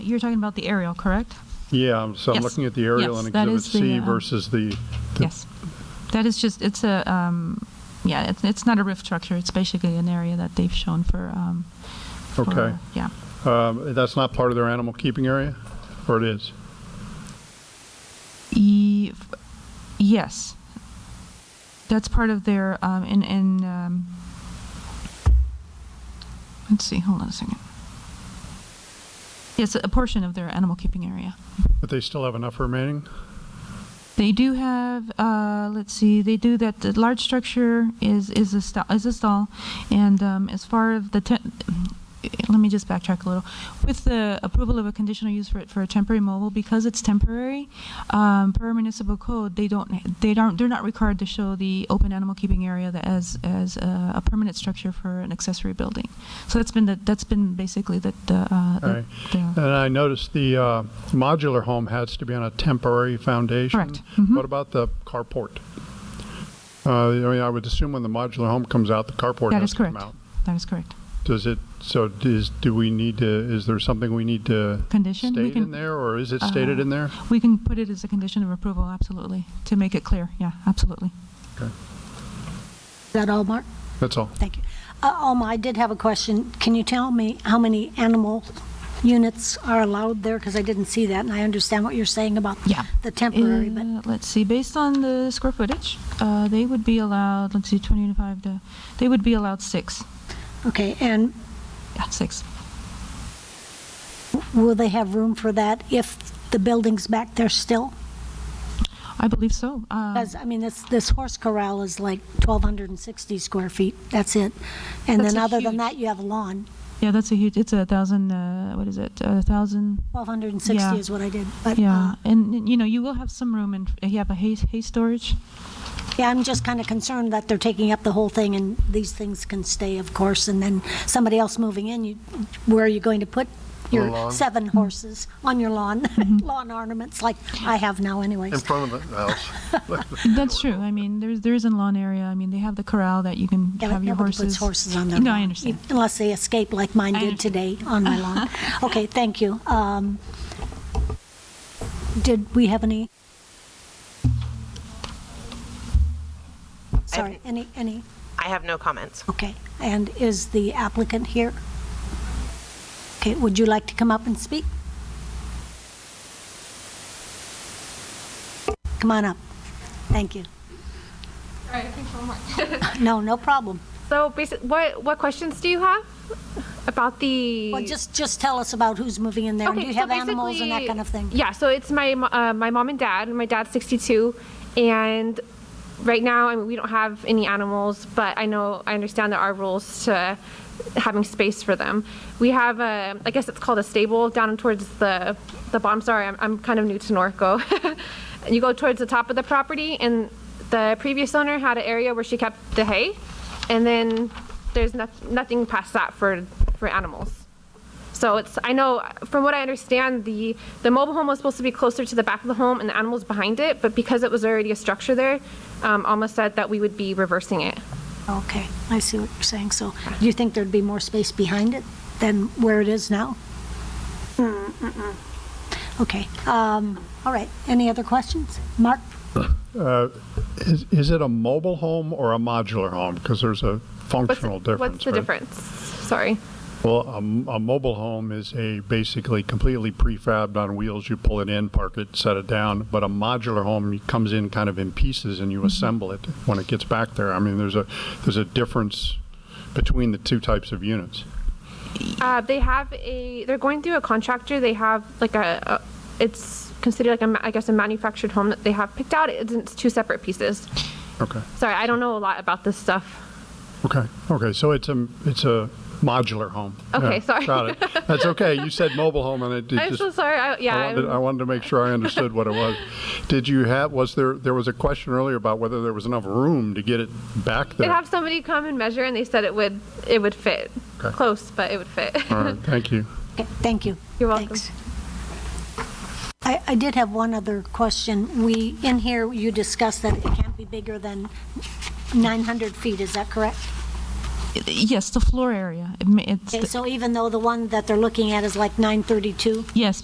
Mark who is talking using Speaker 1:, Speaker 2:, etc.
Speaker 1: You're talking about the aerial, correct?
Speaker 2: Yeah, I'm- so I'm
Speaker 1: Yes.
Speaker 2: looking at the aerial
Speaker 1: Yes,
Speaker 2: in
Speaker 1: that
Speaker 2: Exhibit
Speaker 1: is the,
Speaker 2: C
Speaker 1: um,
Speaker 2: versus the, the-
Speaker 1: Yes. That is just, it's a, um, yeah, it's, it's not a roof structure. It's basically an area that they've shown for, um,
Speaker 2: okay.
Speaker 1: for- yeah.
Speaker 2: Um, That's not part of their animal keeping area, or it is?
Speaker 1: E- f- yes. That's part of their, um, in, in, um, let's see, hold on a second. Yes, a portion of their animal keeping area.
Speaker 2: But they still have enough remaining?
Speaker 1: They do have, uh, let's see, they do that, the large structure is, is a stall, is a stall, and, um, as far as the ten, let me just backtrack a little. With the approval of a conditional use for, for a temporary mobile, because it's temporary, um, per municipal code, they don't, they don't, they're not required to show the open animal keeping area that as, as a, a permanent structure for an accessory building. So that's been the, that's been basically the, the, uh, the-
Speaker 2: Alright.
Speaker 1: the-
Speaker 2: And I noticed the uh, modular home has to be on a temporary foundation.
Speaker 1: Correct. Mhm.
Speaker 2: What about the carport? Uh, I mean, I would assume when the modular home comes out, the carport
Speaker 1: that
Speaker 2: has
Speaker 1: is
Speaker 2: to Uh, come
Speaker 1: correct.
Speaker 2: out.
Speaker 1: That is correct.
Speaker 2: Does it, so is, do we need to, is there something we need to
Speaker 1: Condition, we
Speaker 2: state in
Speaker 1: can, Uh,
Speaker 2: there, or is it stated in there?
Speaker 1: We can put it as a condition of approval, absolutely, to make it clear, yeah, absolutely.
Speaker 3: Is that all, Mark?
Speaker 2: That's all.
Speaker 3: Thank you. Uh, Alma, I did have a question. Can you tell me how many animal units are allowed there? Because I didn't see that, and I understand what you're saying about
Speaker 1: Yeah.
Speaker 3: the temporary, but
Speaker 1: Uh, Let's see, based on the square footage, uh, they would be allowed, let's see, 25 to, they would be allowed six,
Speaker 3: okay. And
Speaker 1: yeah, six.
Speaker 3: will they have room for that if the building's back there still?
Speaker 1: I believe so. Um,
Speaker 3: Because, I mean, this, this horse corral is like 1,260 square feet. That's it. And
Speaker 1: That's
Speaker 3: then
Speaker 1: a
Speaker 3: other than
Speaker 1: huge-
Speaker 3: that, you have a lawn.
Speaker 1: Yeah, that's a huge, it's a thousand, uh, what is it, a thousand,
Speaker 3: 1,260
Speaker 1: Yeah.
Speaker 3: is what I did. But,
Speaker 1: yeah,
Speaker 3: uh,
Speaker 1: and, and, you know, you will have some room and you have a hay, hay storage.
Speaker 3: Yeah, I'm just kind of concerned that they're taking up the whole thing, and these things can stay, of course, and then somebody else moving in, you, where are you going to put your
Speaker 4: lawn.
Speaker 3: seven horses on your lawn,
Speaker 1: Mm-hmm.
Speaker 3: lawn ornaments, like I have now
Speaker 4: In
Speaker 3: anyways?
Speaker 4: front of the house.
Speaker 1: That's true, I mean, there's, there is a lawn area, I mean, they have the corral that you can
Speaker 3: Yeah,
Speaker 1: have
Speaker 3: but
Speaker 1: your
Speaker 3: nobody
Speaker 1: horses.
Speaker 3: puts horses on their lawn. e-
Speaker 1: No, I understand.
Speaker 3: Unless they escape like mine
Speaker 1: I
Speaker 3: did
Speaker 1: understand.
Speaker 3: today on my lawn. Okay, thank you. Um, Did we have any? Sorry, any, any?
Speaker 5: I have no comments.
Speaker 3: Okay, and is the applicant here? Okay, would you like to come up and speak? Come on up. Thank you.
Speaker 6: All right, thanks so much.
Speaker 3: No, no problem.
Speaker 6: So basically, what, what questions do you have about the?
Speaker 3: Well, just, just tell us about who's moving in there. and Do you
Speaker 6: so
Speaker 3: have animals and that
Speaker 6: basically-
Speaker 3: kind of thing?
Speaker 6: Yeah, so it's my, mo- uh, my mom and dad, my dad's 62, and right now, I mean, we don't have any animals, but I know, I understand there are rules to having space for them. We have a, I guess it's called a stable down towards the, the bottom, sorry, I'm, I'm kind of new to Norco. You go towards the top of the property, and the previous owner had an area where she kept the hay, and then there's noth- nothing past that for, for animals. So it's, I know, from what I understand, the, the mobile home was supposed to be closer to the back of the home and the animals behind it, but because it was already a structure there, um, Alma said that we would be reversing it.
Speaker 3: Okay, I see what you're saying. So do you think there'd be more space behind it than where it is now? Okay, um, all right. Any other questions? Mark?
Speaker 2: Is is it a mobile home or a modular home? Because there's a
Speaker 6: What's,
Speaker 2: functional difference,
Speaker 6: what's the
Speaker 2: right?
Speaker 6: difference? Sorry.
Speaker 2: Well, a, m- a mobile home is a basically completely prefabbed on wheels. You pull it in, park it, set it down. But a modular home comes in kind of in pieces, and
Speaker 6: Mm-hmm.
Speaker 2: you assemble it when it gets back there. I mean, there's a there's a difference between the two types of units.
Speaker 6: Uh, they have a, they're going through a contractor, they have like a, a it's considered like a ma- I guess, a manufactured home that they have picked out. It's, it's two separate pieces.
Speaker 2: Okay.
Speaker 6: Sorry, I don't know a lot about this stuff.
Speaker 2: Okay. Okay. So it's a it's a modular home.
Speaker 6: Okay, sorry.
Speaker 2: Got it. That's okay. You said mobile home, and it, it
Speaker 6: I'm
Speaker 2: just
Speaker 6: so sorry. I, yeah.
Speaker 2: I wanted,
Speaker 6: I'm-
Speaker 2: I wanted to make sure I understood what it was. Did you have, was there, there was a question earlier about whether there was enough room to get it back
Speaker 6: They'd
Speaker 2: there?
Speaker 6: have somebody come and measure, and they said it would it would fit
Speaker 2: Okay.
Speaker 6: close, but it would fit.
Speaker 2: All right, thank you.
Speaker 3: Okay, thank you.
Speaker 6: You're welcome.
Speaker 3: Thanks. I, I did have one other question. We, in here, you discussed that it can't be bigger than 900 feet, is that correct?
Speaker 1: Yes, the floor area. It ma- it's
Speaker 3: Okay,
Speaker 1: the-
Speaker 3: so even though the one that they're looking at is like 932?
Speaker 1: Yes,